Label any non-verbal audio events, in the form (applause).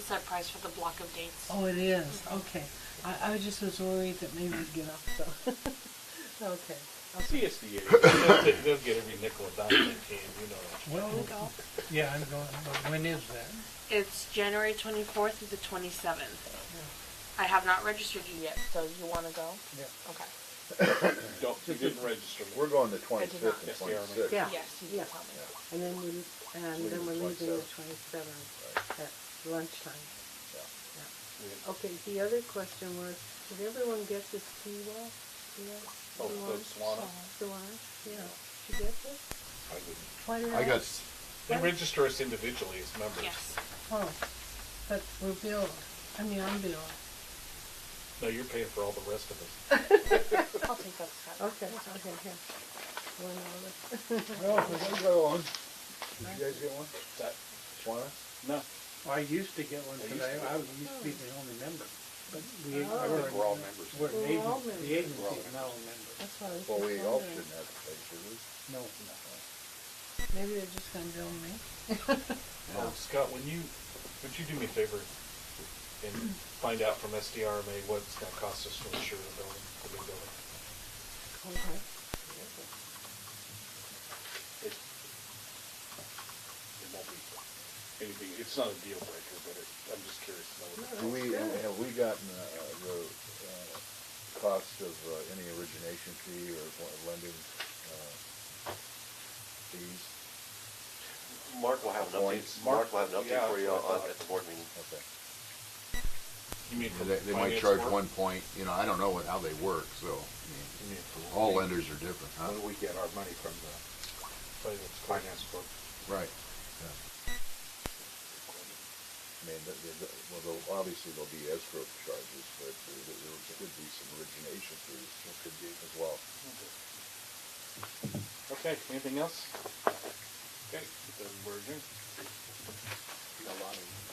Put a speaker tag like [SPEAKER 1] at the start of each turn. [SPEAKER 1] set price for the block of dates.
[SPEAKER 2] Oh, it is, okay. I, I just was worried that maybe we'd get up, so, (laughs) okay.
[SPEAKER 3] CSDA, they'll, get- they'll get every nickel and dime they can, you know.
[SPEAKER 4] Well, yeah, I'm going, but when is that?
[SPEAKER 1] It's January 24th through the 27th. I have not registered you yet, so you want to go?
[SPEAKER 4] Yeah.
[SPEAKER 1] Okay.
[SPEAKER 3] Don't, you didn't register.
[SPEAKER 5] We're going the
[SPEAKER 1] did not.
[SPEAKER 5] twenty-fifth and
[SPEAKER 3] Yes, we are.
[SPEAKER 5] twenty-sixth.
[SPEAKER 2] Yeah.
[SPEAKER 1] Yes, you
[SPEAKER 2] Yeah.
[SPEAKER 1] can tell me.
[SPEAKER 2] And then we, and then we're leaving the twenty-seventh at lunchtime. Okay, the other question was, did everyone get this Siwa?
[SPEAKER 3] Oh, the Swana?
[SPEAKER 2] yeah. Did you get this?
[SPEAKER 3] I didn't.
[SPEAKER 2] Why did
[SPEAKER 5] I got,
[SPEAKER 3] They register us individually as members.
[SPEAKER 1] Yes.
[SPEAKER 2] Oh, but we're billed, I mean, I'm billed.
[SPEAKER 3] No, you're paying for all the rest of us.
[SPEAKER 1] I'll take that. aside.
[SPEAKER 2] Okay, okay, here. One (laughs) dollar.
[SPEAKER 5] well, I got one. Did you guys get one?
[SPEAKER 3] That,
[SPEAKER 5] One?
[SPEAKER 3] no,
[SPEAKER 4] I used to get one
[SPEAKER 3] I used
[SPEAKER 4] today,
[SPEAKER 3] to.
[SPEAKER 4] I was, used to be the only member, but we,
[SPEAKER 2] Oh. I
[SPEAKER 4] we're,
[SPEAKER 3] think we're all members.
[SPEAKER 4] we're an
[SPEAKER 2] We're all members.
[SPEAKER 4] agency, the agency's now a member.
[SPEAKER 2] That's why I was
[SPEAKER 5] Well, we
[SPEAKER 2] just
[SPEAKER 5] all
[SPEAKER 2] wondering.
[SPEAKER 5] shouldn't have to pay, should we?
[SPEAKER 1] Oh,
[SPEAKER 4] No,
[SPEAKER 2] Maybe they're just gonna bill me.
[SPEAKER 3] Oh, Scott, when you, would you do me a favor and find out from SDRMA what it's gonna cost us to insure the building, the new building?
[SPEAKER 2] Okay.
[SPEAKER 3] It, it won't be anything, it's not a deal breaker, but it, I'm just curious to know. what it-
[SPEAKER 5] Do we, have we gotten, uh, the, uh, cost of, uh, any origination fee or wa- lending, uh, fees?
[SPEAKER 6] Mark will have an update,
[SPEAKER 5] Points.
[SPEAKER 6] Mark will have an
[SPEAKER 3] Yeah,
[SPEAKER 6] update for you
[SPEAKER 3] that's what I
[SPEAKER 6] on,
[SPEAKER 3] thought.
[SPEAKER 6] at the board meeting.
[SPEAKER 5] Okay.
[SPEAKER 3] You mean from
[SPEAKER 7] They, they might
[SPEAKER 3] finance
[SPEAKER 7] charge
[SPEAKER 3] work?
[SPEAKER 7] one point, you know, I don't know what, how they work, so, I
[SPEAKER 3] You mean from-
[SPEAKER 7] mean, all lenders are different, huh?
[SPEAKER 5] How do we get our money from the?
[SPEAKER 3] Finance, finance book.
[SPEAKER 7] Right.
[SPEAKER 5] I mean, the, the, the- well, there'll- obviously there'll be escrow charges, but there there could be some origination fees, there could be as well.
[SPEAKER 3] Okay, anything else?